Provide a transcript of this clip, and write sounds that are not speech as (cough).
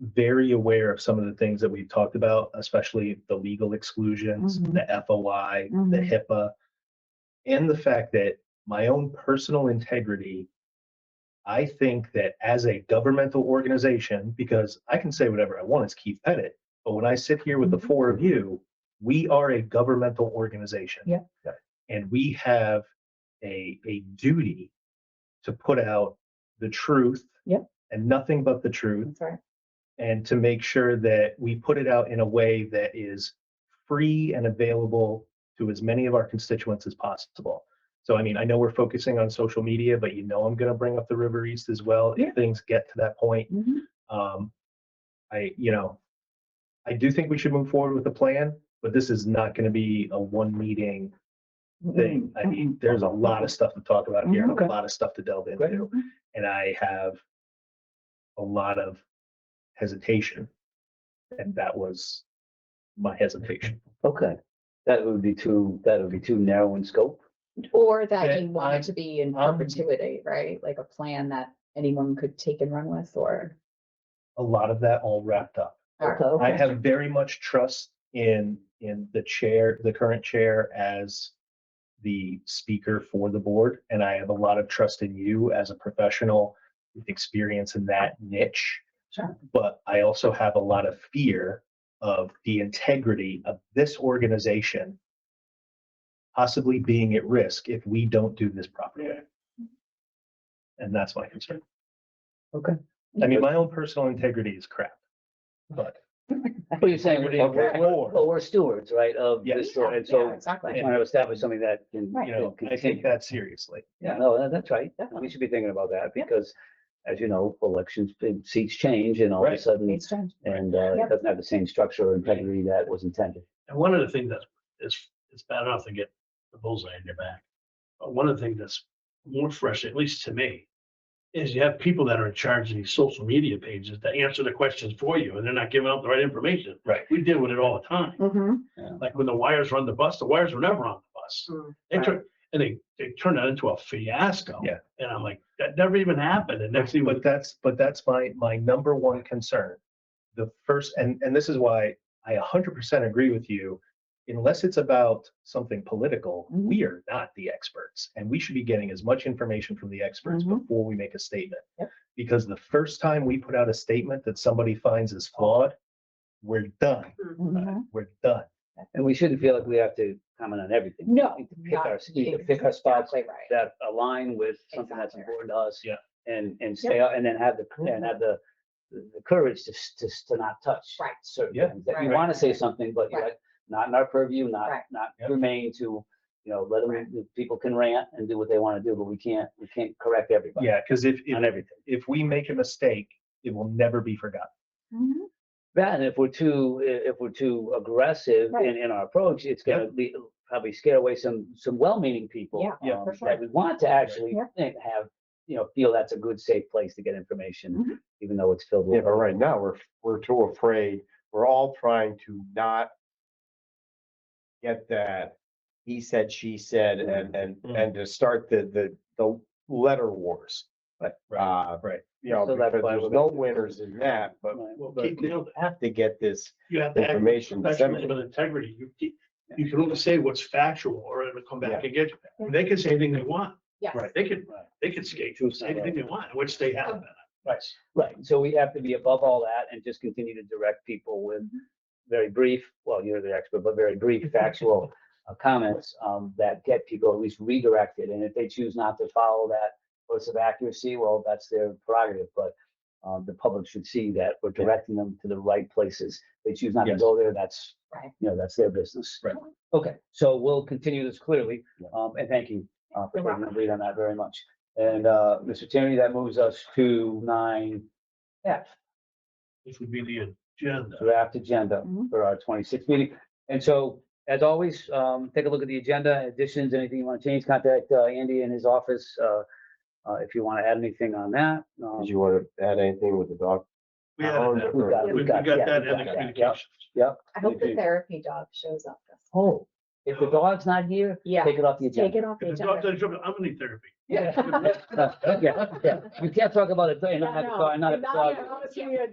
very aware of some of the things that we've talked about, especially the legal exclusions, Mhm. the FOI, the Mhm. HIPAA, and the fact that my own personal integrity, I think that as a governmental organization, because I can say whatever I want, it's Keith Pettit, but when I sit here with the Mhm. four of you, we are a governmental organization. Yeah. Yeah. And we have a, a duty to put out the truth. Yep. And nothing but the truth That's right. and to make sure that we put it out in a way that is free and available to as many of our constituents as possible. So, I mean, I know we're focusing on social media, but you know, I'm going to bring up the River East as well Yeah. if things get to that point. Mhm. Um, I, you know, I do think we should move forward with the plan, but this is not going to be a one meeting thing. I mean, there's a lot of stuff to talk about here, and Mm-hmm. Okay. a lot of stuff to delve Great. into, and I have a lot of hesitation, and that was my hesitation. Okay, that would be too, that would be too narrow in scope. Or that that you want I'm- it to be in I'm- perpetuity, right? Like a plan that anyone could take and run with or. A lot of that all wrapped up. or- I have very much trust in in the chair, the current chair as the speaker for the board, and I have a lot of trust in you as a professional with experience in that niche. Sure. But I also have a lot of fear of the integrity of this organization possibly being at risk if we don't do this properly. And that's my concern. Okay. I mean, my own personal integrity is crap, but What you're saying, integrity we're, of we're- the board. well, we're stewards, right, of Yes. this, Yeah, and yeah, so Exactly. I want to establish something that can, Right. you can (laughs) know, I continue. take that seriously. Yeah, no, that- that's right. Definitely. We should be thinking about that Yeah. because, as you know, elections, seats change and all of a Right. sudden, It's changed. and uh, Yep. it doesn't have the same structure or integrity that was intended. And one of the things that's, it's, it's bad enough to get the bullseye in your back. But one of the things that's more fresh, at least to me, is you have people that are in charge of these social media pages that answer the questions for you and they're not giving out the right information. Right. Mm. We deal with it all the time. Mhm. Like when the wires run the bus, the wires were never on the bus. Uh, They Right. turn, and they, they turn that into a fiasco. Yeah. And I'm like, that never even happened. And next thing, But but that's, but that's my, my number one concern. The first, and, and this is why I hundred percent agree with you. Unless it's about something political, Mhm. we are not the experts and we should be getting as much information from the experts Mhm. before we make a statement. Yep. Because the first time we put out a statement that somebody finds is flawed, we're done. Mhm. We're done. And we shouldn't feel like we have to comment on everything. No. We can Pick not our, we can pick our spots Exactly right. that align with something that's Exactly Mm-hmm. important to us. Yeah. And, and stay, out and then have the, and have the, the courage to, s- to, s- to not touch. Right. Certain Yeah. things that you Right. want to say something, but you're Right. like, not in our purview, not, Right. not Yeah. remain to, you know, let Right. them, people can rant and do what they want to do, but we can't, we can't correct everybody Yeah, because if, on if, everything. if we make a mistake, it will never be forgotten. Mhm. That, and if we're too, i- if we're too aggressive Right. in, in our approach, it's gonna be, probably scare away some, some well-meaning people. Yeah, Yeah, for um, sure. That we want to actually Yeah. think- have, you know, feel that's a good, safe place to get Mhm. information, even though it's filled Yeah, with. but right now, we're, we're too afraid, we're all trying to not get that he said, she said, Mm-hmm. and, and, Mm. and to start the, the, the letter wars. Right. Uh, Right. you know, So that's because why there's we're- no winners in that, but Right. well, but Keith nailed it. we have to get this you have to act with information professionalism disseminated. and integrity. You, keep- you can only say what's factual or it'll come back Yeah. and get you. They can say anything they want. Yes. Right. They can, Right. they can skate True, say anything they want, which they have. Right, right. So we have to be above all that and just continue to direct people with very brief, well, you're the expert, but very brief factual uh, comments um, that get people at least redirected. And if they choose not to follow that course of accuracy, well, that's their prerogative. But um, the public should see that we're directing them to the right places. They choose not to Yes. go there, that's, Right. you know, that's their business. Right. Okay, so we'll continue this clearly. Yeah. um, And thank you uh, for You're taking the lead on that very much. And uh, Mr. Tierney, that moves us to nine F, This would be the agenda. draft agenda Mhm. for our twenty-sixth meeting. And so, as always, um, take a look at the agenda, additions, anything you want to change, contact uh, Andy in his office, uh, uh, if you want to add anything on that. Um, Did you want to add anything with the dog? We had pound that. We've or- oh, got We it, we we've got yeah, that we've in got the that, communications. Yep. I hope the Mhm. therapy dog shows up. this- Oh, if the dog's not here, Yeah. take it off the Take agenda. it off the If it's not agenda. (laughs) done, I'm gonna need therapy. (laughs) Yeah, yeah, yeah. We can't talk about it, and not, No, (laughs) not, no, not. not- dog. yeah,